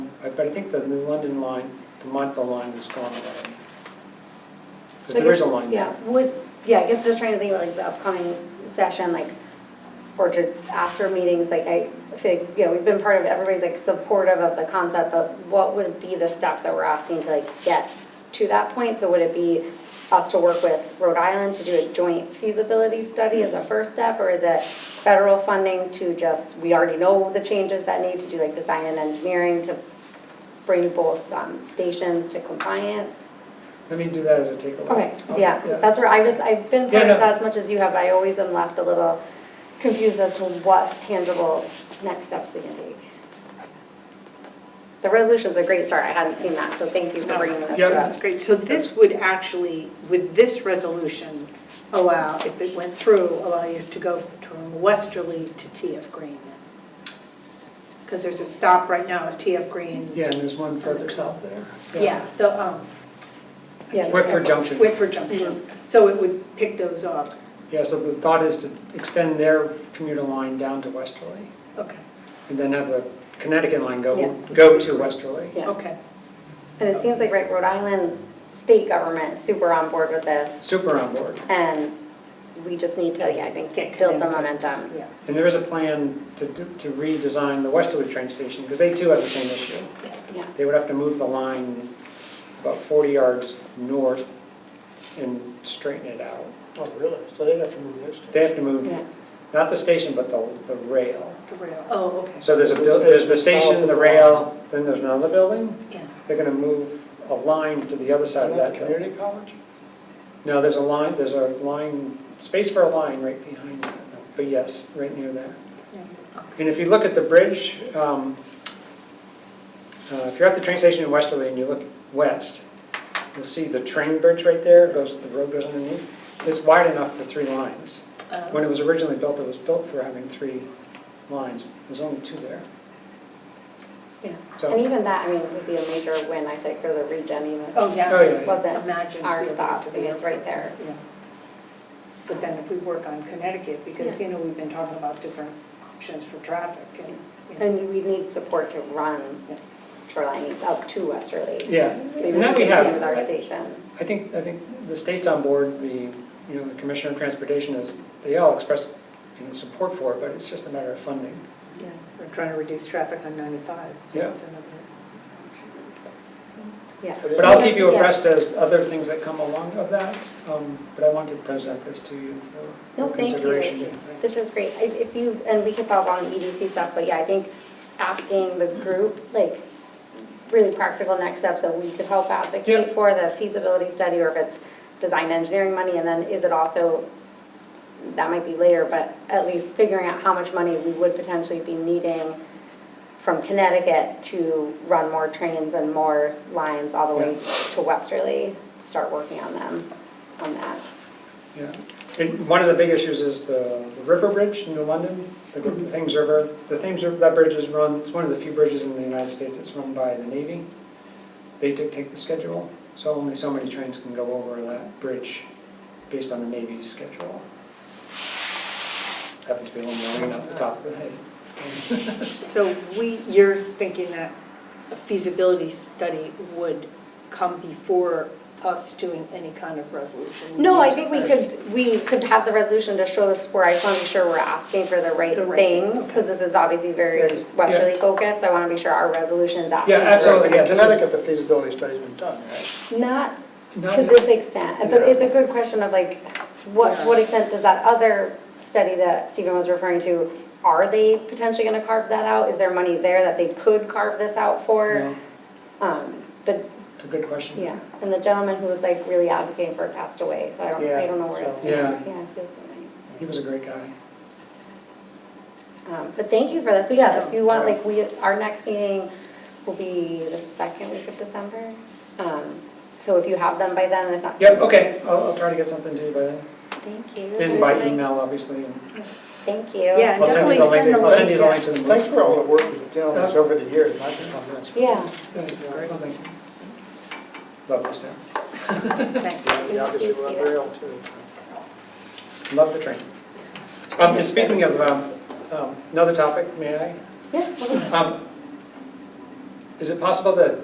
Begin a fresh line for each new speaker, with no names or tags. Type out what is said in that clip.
but I think the New London line, the Montville line is gone away.
So I
Because there is a
guess-
line
Yeah,
there.
would, yeah, I guess just trying to think about like the upcoming session, like, or to ask for meetings, like, I feel like, you know, we've been part of, everybody's like supportive of the concept, but what would be the steps that we're asking to like get to that point? So would it be us to work with Rhode Island to do a joint feasibility study as a first step? Or is it federal funding to just, we already know the changes that need to do, like design and engineering to bring both um, stations to compliance?
Let me do that as a takeaway.
Okay, yeah, that's where I just, I've been
Yeah,
part of
no.
that as much as you have, but I always am left a little confused as to what tangible next steps we can take. The resolution's a great start, I hadn't seen that, so thank you for bringing this
Yeah.
This
up.
is great. So this would actually, with this resolution, allow, if it went through, allow you to go from Westerly to TF Green. Because there's a stop right now at TF Green.
Yeah, and there's one further south there.
Yeah, the, um.
Yeah.
Whitford Junction.
Whitford Junction.
Mm-hmm.
So it would pick those up.
Yeah, so the thought is to extend their commuter line down to Westerly,
Okay,
and then have the Connecticut line
Yeah.
go, go to Westerly.
Yeah.
okay.
And it seems like, right, Rhode Island state government is super on board with this,
Super on board.
and we just need to, yeah, I think,
Get
build the
connected.
momentum.
Yeah.
And there is a plan to to redesign the Westerly train station, because they too have the same issue.
Yeah,
They would have to move the line about 40 yards north and straighten it out.
Oh, really? So they have to move their stuff?
They have to move,
yeah,
not the station, but the, the rail.
The rail, oh, okay.
So there's a, buil- there's the station, the rail, then there's another building.
Yeah.
They're gonna move a line to the other
Is that
side of
the
that building.
community college?
No, there's a line, there's a line, space for a line right behind that, but yes, right near there.
Yeah.
And if you look at the bridge, um, uh, if you're at the train station in Westerly and you look west, you'll see the train bridge right there, goes, the road goes underneath. It's wide enough for three lines.
Uh,
When it was originally built, it was built for having three lines. There's only two there.
yeah.
So-
And even that, I mean, would be a major win, I think, for the region, even. if
Oh, yeah.
Oh, yeah.
It wasn't
Imagine
our
if we
stop,
were
I
to
mean,
be-
it's right there.
Yeah. But then if we work on Connecticut, because, you know, we've been talking about different options for traffic and, you know,
And we need support to run shoreline needs up to Westerly.
Yeah,
So we
and that we have.
With our station.
I think, I think the state's on board, the, you know, the Commissioner of Transportation is, they all express, you know, support for it, but it's just a matter of funding.
yeah, we're trying to reduce traffic on 95. so
Yeah.
it's another-
Yeah.
But I'll keep you
Yeah.
abreast as other things that come along of that, um, but I wanted to present this to you for
No,
for
thank
consideration.
you. This is great. If if you, and we can follow up on the EDC stuff, but yeah, I think asking the group, like, really practical next steps that we could help advocate
Yeah.
for, the feasibility study, or if it's design engineering money, and then is it also, that might be later, but at least figuring out how much money we would potentially be needing from Connecticut to run more trains and more lines all the way to Westerly, to start working on them, on that.
Yeah, and one of the big issues is the the river bridge in New London, the gr-
Mm-hmm.
the Thames River. The Thames River, that bridge is run, it's one of the few bridges in the United States that's run by the Navy. They dictate the schedule, so only so many trains can go over that bridge based on the Navy's schedule. Happens to be a little more off the top of the head.
So we, you're thinking that a feasibility study would come before us doing any kind of resolution?
No, I think we could, we could have the resolution to show the support, I just want to be sure we're asking for the right
The right thing,
things,
okay.
because this is obviously very westerly focused, so I want to be sure our resolution is asking.
Yeah,
for it.
absolutely, yeah, this is-
Connecticut, the feasibility study's been done, right?
Not
Not-
to this extent, but
Yeah.
it's a good question of like, what,
Yeah.
what extent does that other study that Stephen was referring to, are they potentially going to carve that out? Is there money there that they could carve this out for?
No,
Um, But,
It's a good question.
yeah, and the gentleman who was like really advocating for it passed away, so I don't, I
Yeah,
don't know where it's.
so-
Yeah.
Yeah, it feels so nice.
He was a great guy.
Um, But thank you for this. So yeah, if you want,
Yeah.
like, we, our next meeting will be the second week of December. Um, So if you have them by then, if not.
Yep, okay, I'll, I'll try to get something to you by then,
Thank you.
and by email, obviously. and
Thank you.
Yeah,
I'll send you the
definitely send
link,
the
I'll send you the link
list,
to the.
Thanks for all the work you've done on this over the years, not just on this.
Yeah.
This is great, thank you. Love this town,
yeah. Thank you.
Yeah, we obviously were on rail too.
love the train. Um, and speaking of, um, um, another topic, may I?
Yeah.
Um, Is it possible that